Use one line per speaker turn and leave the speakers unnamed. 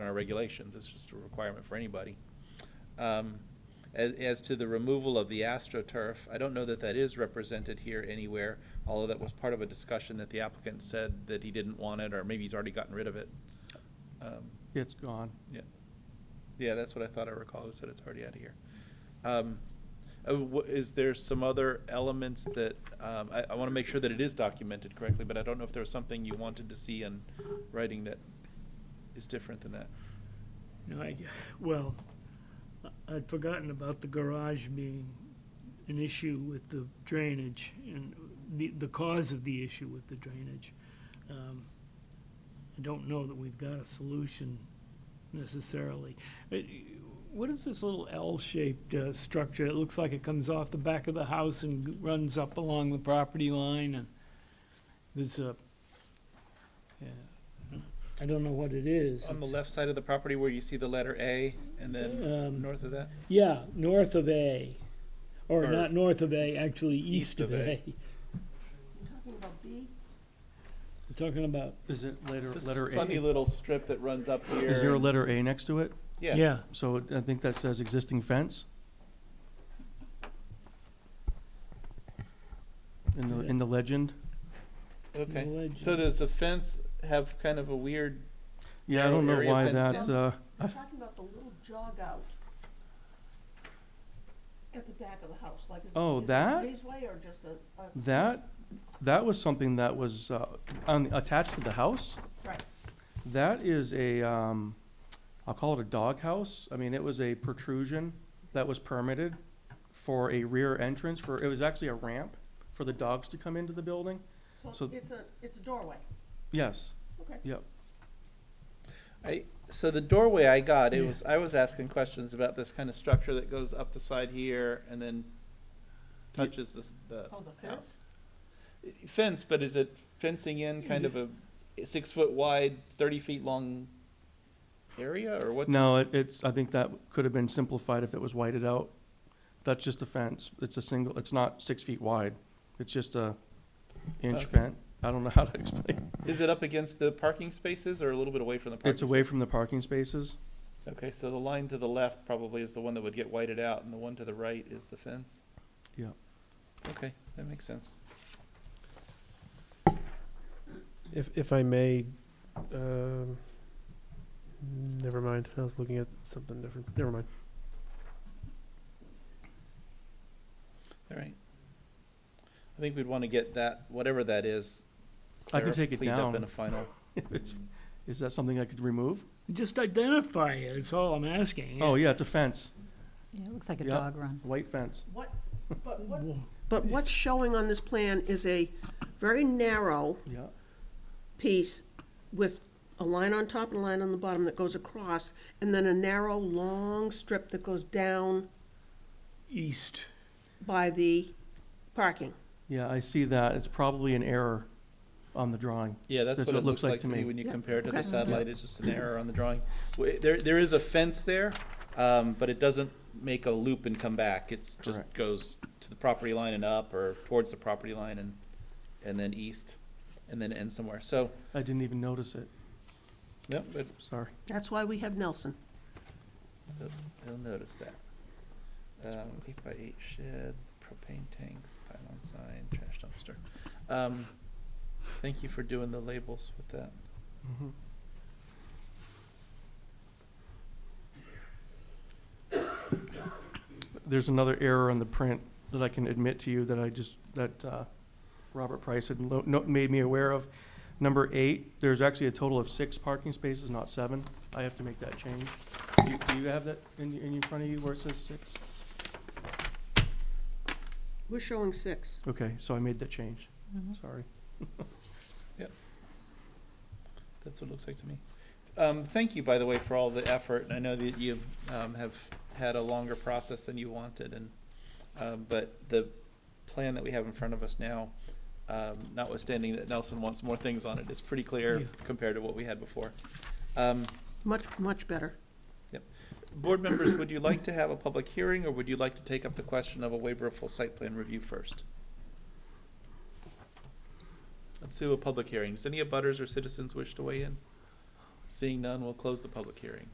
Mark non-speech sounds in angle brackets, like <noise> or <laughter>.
our regulations, it's just a requirement for anybody. Um, As, as to the removal of the astroturf, I don't know that that is represented here anywhere, although that was part of a discussion that the applicant said that he didn't want it, or maybe he's already gotten rid of it. Um,
It's gone.
Yeah, yeah, that's what I thought I recalled, is that it's already out of here. Um, uh, wha- Is there some other elements that, um, I, I want to make sure that it is documented correctly, but I don't know if there was something you wanted to see in writing that is different than that.
No, I, well, I- I'd forgotten about the garage being an issue with the drainage and the, the cause of the issue with the drainage. Um, I don't know that we've got a solution necessarily. Uh, What is this little L-shaped, uh, structure? It looks like it comes off the back of the house and g- runs up along the property line and there's a, yeah, I don't know what it is.
On the
It's-
left side of the property where you see the letter A, and then
Um,
north of that?
Yeah, north of A, or
Or-
not north of A, actually
East
east
of
of
A.
A.
Talking about B,
I'm talking about,
Is it letter,
This
letter
funny
A?
little strip that runs up here.
Is there a
and-
letter A next to it?
Yeah,
yeah,
So it- I think that says existing fence. In the, in the legend?
okay.
No ledge.
So does the fence have kind of a weird,
Yeah, I don't know
Area
why
fenced
that,
in.
uh,
I'm talking about the little jog out at the back of the house, like. is-
Oh,
is it a
that?
Ways way or just a, a.
that, that was something that was, uh, on, attached to the house.
Right,
That is a, um, I'll call it a doghouse. I mean, it was a protrusion that was permitted for a rear entrance for, it was actually a ramp for the dogs to come into the building.
so
So-
it's a, it's a doorway,
Yes,
okay.
yep.
I, so the doorway I got, it
Yeah.
was, I was asking questions about this kind of structure that goes up the side here and then touches this, the
Oh, the
house.
fence?
Fence, but is it fencing in kind of a six foot wide, thirty feet long area, or what's?
No, it, it's, I think that could have been simplified if it was whited out. That's just a fence. It's a single, it's not six feet wide. It's just a inch
Okay.
fence. I don't know how to explain. it.
Is it up against the parking spaces or a little bit away from the parking?
It's away from the parking spaces. <laughs>
spaces? Okay, so the line to the left probably is the one that would get whited out, and the one to the right is the fence?
Yeah.
Okay, that makes sense.
If, if I may, um, never mind. I was looking at something different. Never mind.
All right. I think we'd want to get that, whatever that is.
I can
clar-
take it
cleaned up
down.
in a final.
It's, is that something I could remove?
just identify it, is all I'm asking.
Oh, yeah, it's a fence,
Yeah, it looks like a
Yep.
dog run.
white fence.
What, but what,
Wha-
But what's showing on this plan is a very narrow
Yeah.
piece with a line on top and a line on the bottom that goes across, and then a narrow, long strip that goes down
East,
by the parking.
Yeah, I see that. It's probably an error on the drawing.
Yeah, that's what it looks like to me when you
Yeah,
compare it to the
okay.
satellite, it's just an error on the drawing. Wa- There, there is a fence there, um, but it doesn't make a loop and come back. It's just
Correct.
goes to the property line and up, or towards the property line and, and then east, and then ends somewhere. So,
I didn't even notice it.
yep, but
Sorry.
That's why we have Nelson.
They'll notice that. Um, eight by eight shed, propane tanks, pylon sign, trash dumpster. Um, thank you for doing the labels with that.
Mhm. There's another error on the print that I can admit to you that I just, that uh, Robert Price had lo- no- made me aware of. Number eight, there's actually a total of six parking spaces, not seven. I have to make that change. Do you- Do you have that in in front of you where it says six?
We're showing six.
Okay, so I made that change.
Mm-hmm.
Sorry.
That's what it looks like to me. Um, thank you, by the way, for all the effort. And I know that you um, have had a longer process than you wanted, and um, but the plan that we have in front of us now, um, notwithstanding that Nelson wants more things on it, is pretty clear
Yeah.
compared to what we had before. Um,
Much, much better.
Board members, would you like to have a public hearing, or would you like to take up the question of a waiver of full site plan review first? Let's do a public hearing. Does any abutters or citizens wish to weigh in? Seeing none, we'll close the public hearing.